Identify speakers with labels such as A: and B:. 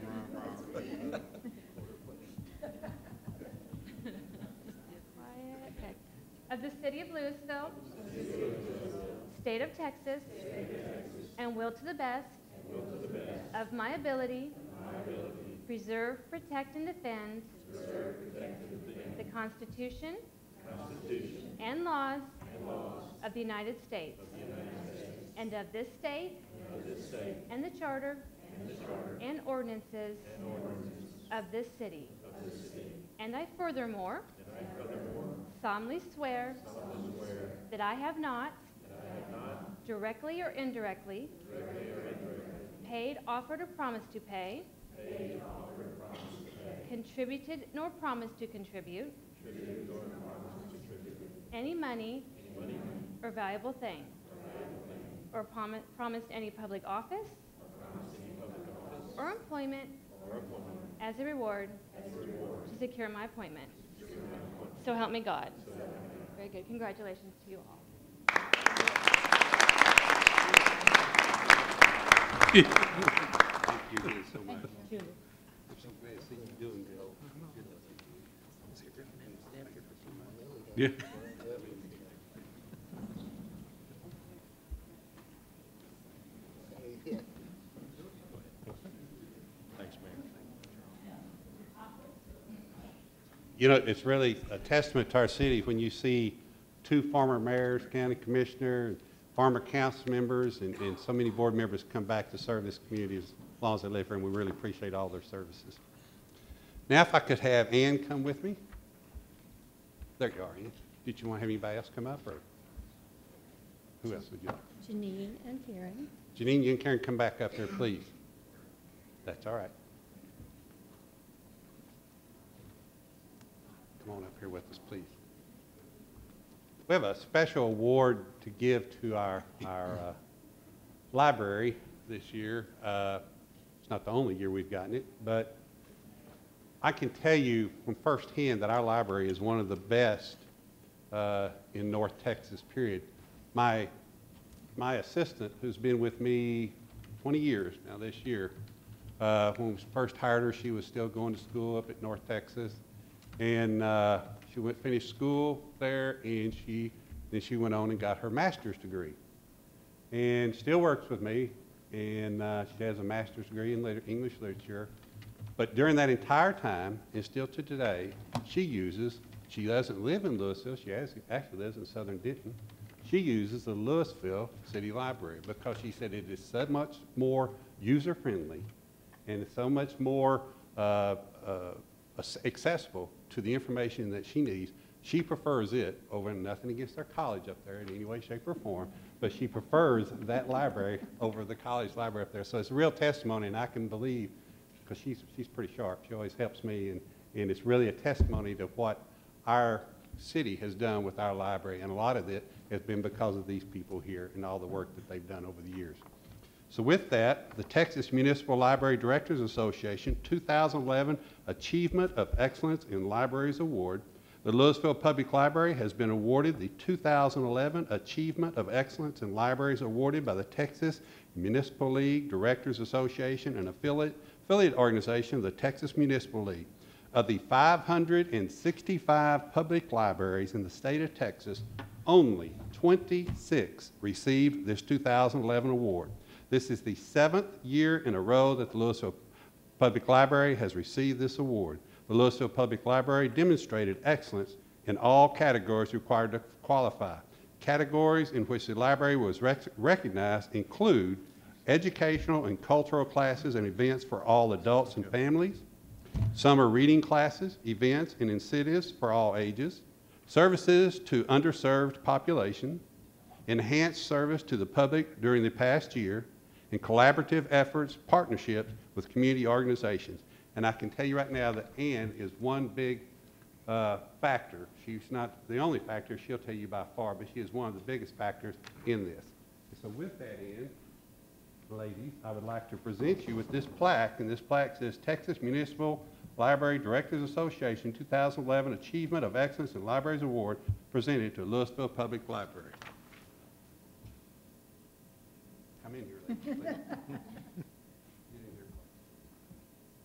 A: of the City of Louisville, State of Texas, and will to the best of my ability preserve, protect, and defend the Constitution and laws of the United States and of this state and the charter and ordinances of this city. And I furthermore solemnly swear that I have not directly or indirectly paid, offered, or promised to pay contributed nor promised to contribute any money or valuable thing or promi- promised any public office or employment as a reward to secure my appointment. So help me God. Very good. Congratulations to you all.
B: Thank you guys so much. I'm so glad to see you doing good. Yeah. Thanks, Mayor. You know, it's really a testament to our city when you see two former mayors, county commissioner, former council members, and, and so many board members come back to serve this community as long as they live here, and we really appreciate all their services. Now, if I could have Ann come with me. There you are, Ann. Did you want to have anybody else come up, or who else would you like?
C: Janine and Karen.
B: Janine, you and Karen come back up here, please. That's all right. Come on up here with us, please. We have a special award to give to our, our uh, library this year. Uh, It's not the only year we've gotten it, but I can tell you from firsthand that our library is one of the best uh, in North Texas, period. My, my assistant, who's been with me 20 years now this year, uh, when we first hired her, she was still going to school up at North Texas. And uh, she went, finished school there, and she, then she went on and got her master's degree and still works with me, and uh, she has a master's degree in liter- English literature. But during that entire time, and still to today, she uses, she doesn't live in Louisville, she has- actually lives in southern Denton, she uses the Louisville City Library because she said it is so much more user-friendly and it's so much more uh, uh, ac- accessible to the information that she needs. She prefers it over, nothing against their college up there in any way, shape, or form, but she prefers that library over the college library up there. So it's a real testimony, and I can believe, because she's, she's pretty sharp, she always helps me, and, and it's really a testimony to what our city has done with our library, and a lot of it has been because of these people here and all the work that they've done over the years. So with that, the Texas Municipal Library Directors Association 2011 Achievement of Excellence in Libraries Award. The Louisville Public Library has been awarded the 2011 Achievement of Excellence in Libraries awarded by the Texas Municipal League Directors Association and affiliate affiliate organization of the Texas Municipal League. Of the 565 public libraries in the state of Texas, only 26 received this 2011 award. This is the seventh year in a row that the Louisville Public Library has received this award. The Louisville Public Library demonstrated excellence in all categories required to qualify. Categories in which the library was rec- recognized include educational and cultural classes and events for all adults and families, summer reading classes, events, and incentives for all ages, services to underserved population, enhanced service to the public during the past year, and collaborative efforts, partnerships with community organizations. And I can tell you right now that Ann is one big uh, factor. She's not the only factor, she'll tell you by far, but she is one of the biggest factors in this. So with that, Ann, ladies, I would like to present you with this plaque, and this plaque says Texas Municipal Library Directors Association 2011 Achievement of Excellence in Libraries Award presented to Louisville Public Library. Come in here, ladies, please.